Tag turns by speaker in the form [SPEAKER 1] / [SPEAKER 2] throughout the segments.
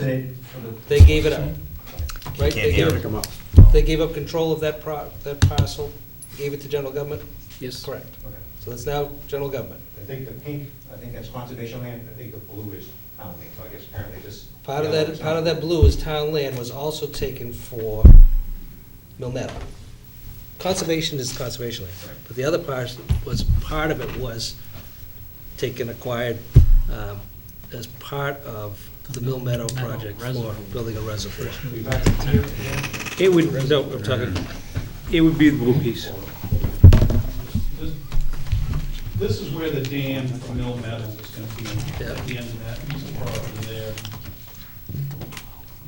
[SPEAKER 1] They, for the
[SPEAKER 2] They gave it up, right? They
[SPEAKER 3] hear
[SPEAKER 2] gave up- They gave up control of that pro, that parcel, gave it to general government? Yes. Correct.
[SPEAKER 1] Okay.
[SPEAKER 2] So it's now general government.
[SPEAKER 1] I think the pink, I think that's conservation land, I think the blue is town land, so I guess apparently this.
[SPEAKER 2] Part of that, part of that blue is town land was also taken for Mill Meadow. Conservation is conservation land, but the other part was, part of it was taken, acquired um, as part of the Mill Meadow project for building a reservoir.
[SPEAKER 1] We've got the tier again.
[SPEAKER 2] It would, no, I'm talking, it would be the blue piece.
[SPEAKER 4] This- This is where the dam for Mill Meadows is gonna be,
[SPEAKER 2] Yeah.
[SPEAKER 4] at the end of that piece of property there.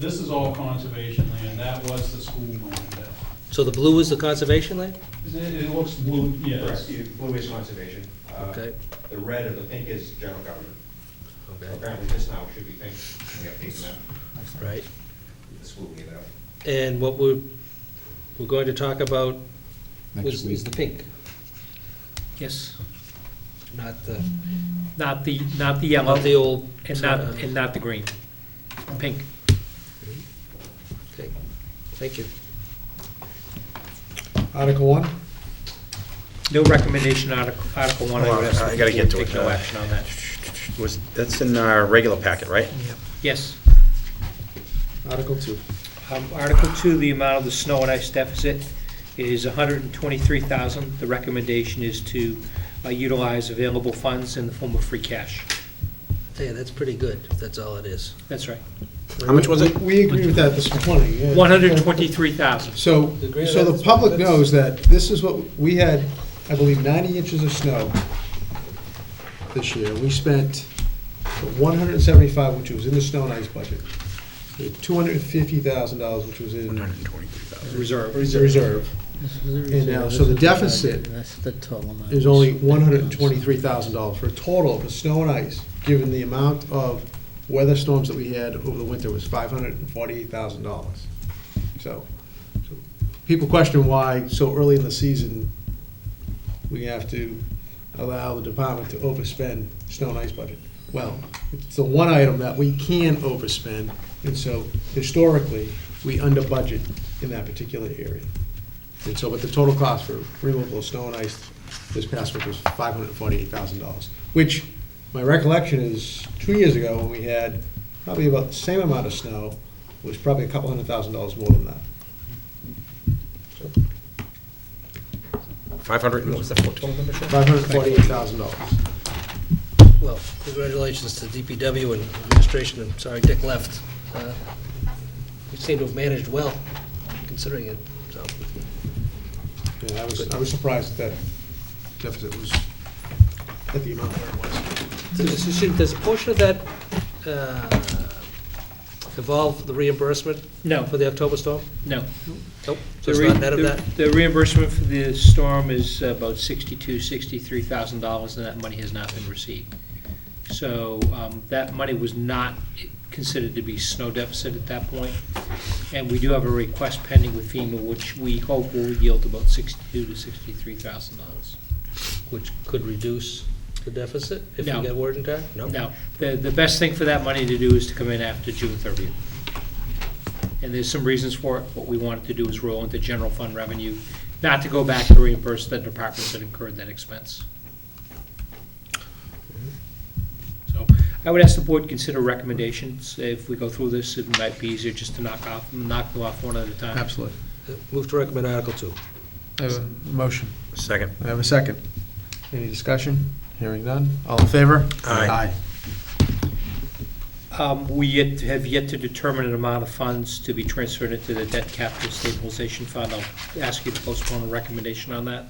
[SPEAKER 4] This is all conservation land, that was the school land. that-
[SPEAKER 2] So the blue is the conservation land?
[SPEAKER 4] It, it looks blue,
[SPEAKER 1] Correct,
[SPEAKER 4] yes.
[SPEAKER 1] the blue is conservation. Uh,
[SPEAKER 3] Uh-huh.
[SPEAKER 2] Okay.
[SPEAKER 1] The red or the pink is general government. So
[SPEAKER 2] Okay,
[SPEAKER 1] Apparently this now should be pink, we got pink now,
[SPEAKER 2] right.
[SPEAKER 1] the school gave it up.
[SPEAKER 2] And what we're, we're going to talk about
[SPEAKER 3] Next
[SPEAKER 2] was,
[SPEAKER 3] week.
[SPEAKER 2] is the pink,
[SPEAKER 5] Yes,
[SPEAKER 2] not uh, the,
[SPEAKER 5] not the, not the yellow,
[SPEAKER 2] not the old. uh,
[SPEAKER 5] and not, and not the green, pink.
[SPEAKER 2] Okay, thank you.
[SPEAKER 6] Article one?
[SPEAKER 5] No recommendation, Article, Article one, I would ask.
[SPEAKER 3] Well, I
[SPEAKER 5] the
[SPEAKER 3] gotta
[SPEAKER 5] board
[SPEAKER 3] get to
[SPEAKER 5] Take
[SPEAKER 3] it,
[SPEAKER 5] no
[SPEAKER 3] uh,
[SPEAKER 5] action on that.
[SPEAKER 3] Was, that's in our regular packet, right?
[SPEAKER 5] Yes,
[SPEAKER 6] Article two.
[SPEAKER 5] um, Article two, the amount of the snow and ice deficit is hundred and twenty-three thousand. The recommendation is to uh, utilize available funds in the form of free cash.
[SPEAKER 2] Tell you, that's pretty good, if that's all it is.
[SPEAKER 5] That's right,
[SPEAKER 3] How much was it?
[SPEAKER 6] We agreed with that this morning. yeah.
[SPEAKER 5] one hundred and twenty-three thousand.
[SPEAKER 6] So,
[SPEAKER 2] You agree with
[SPEAKER 6] so
[SPEAKER 2] that
[SPEAKER 6] the
[SPEAKER 2] this
[SPEAKER 6] public
[SPEAKER 2] morning?
[SPEAKER 6] knows that this is what, we had, I believe, ninety inches of snow this year. We spent one hundred and seventy-five, which was in the snow and ice budget. Two hundred and fifty thousand dollars, which was in
[SPEAKER 5] Reserve.
[SPEAKER 6] reserve,
[SPEAKER 7] And
[SPEAKER 6] now, uh, so the deficit
[SPEAKER 7] That's the total amount.
[SPEAKER 6] is only one hundred and twenty-three thousand dollars for a total for snow and ice, given the amount of weather storms that we had over the winter was five hundred and forty-eight thousand dollars. So, so people question why so early in the season, we have to allow the department to overspend snow and ice budget. Well, it's the one item that we can overspend, and so historically, we under budget in that particular area. And so, but the total cost for removal of snow and ice this past week was five hundred and forty-eight thousand dollars, which, my recollection is, two years ago, when we had probably about the same amount of snow, it was probably a couple hundred thousand dollars more than that.
[SPEAKER 3] Five hundred, what was the total number? Sean?
[SPEAKER 6] Five hundred and forty-eight thousand dollars.
[SPEAKER 2] Well, congratulations to DPW and administration, I'm sorry Dick left. Uh, You seem to have managed well, considering it, so.
[SPEAKER 6] Yeah, I was, I was surprised that deficit was at the amount where it was.
[SPEAKER 2] Does does- does a portion of that uh, involve the reimbursement
[SPEAKER 5] No,
[SPEAKER 2] for the October storm?
[SPEAKER 5] no.
[SPEAKER 2] Nope, so
[SPEAKER 5] The
[SPEAKER 2] it's
[SPEAKER 5] re-
[SPEAKER 2] not net of
[SPEAKER 5] the-
[SPEAKER 2] that?
[SPEAKER 5] The reimbursement for the storm is about sixty-two, sixty-three thousand dollars, and that money has not been received. So, um, that money was not considered to be snow deficit at that point. And we do have a request pending with FEMA, which we hope will yield about sixty-two to sixty-three thousand dollars.
[SPEAKER 2] Which could reduce the deficit if you
[SPEAKER 5] No.
[SPEAKER 2] get word in time?
[SPEAKER 5] Now, the, the best thing for that money to do is to come in after June thirtieth. And there's some reasons for it. What we wanted to do is roll into general fund revenue, not to go back and reimburse the departments that incurred that expense. So I would ask the board to consider recommendations. If we go through this, it might be easier just to knock off, knock them off one at a time.
[SPEAKER 6] Absolutely.
[SPEAKER 2] Move to recommend Article Two.
[SPEAKER 6] I have a motion.
[SPEAKER 3] Second.
[SPEAKER 6] I have a second. Any discussion? Hearing none. All in favor?
[SPEAKER 3] Aye.
[SPEAKER 5] Um, We yet, have yet to determine an amount of funds to be transferred into the debt capital stabilization fund. I'll ask you to postpone a recommendation on that.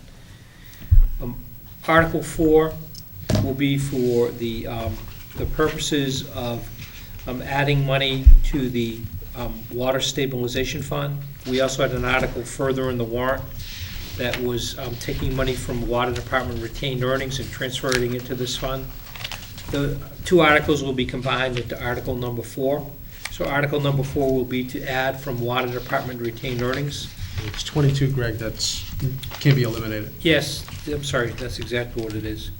[SPEAKER 5] Um, Article four will be for the, um, the purposes of um, adding money to the um, water stabilization fund. We also had an article further in the warrant that was um, taking money from water department retained earnings and transferring it to this fund. The two articles will be combined into article number four. So article number four will be to add from water department retained earnings.
[SPEAKER 6] It's twenty-two, Greg, that's, can be eliminated.
[SPEAKER 5] Yes, I'm sorry, that's exactly what it is.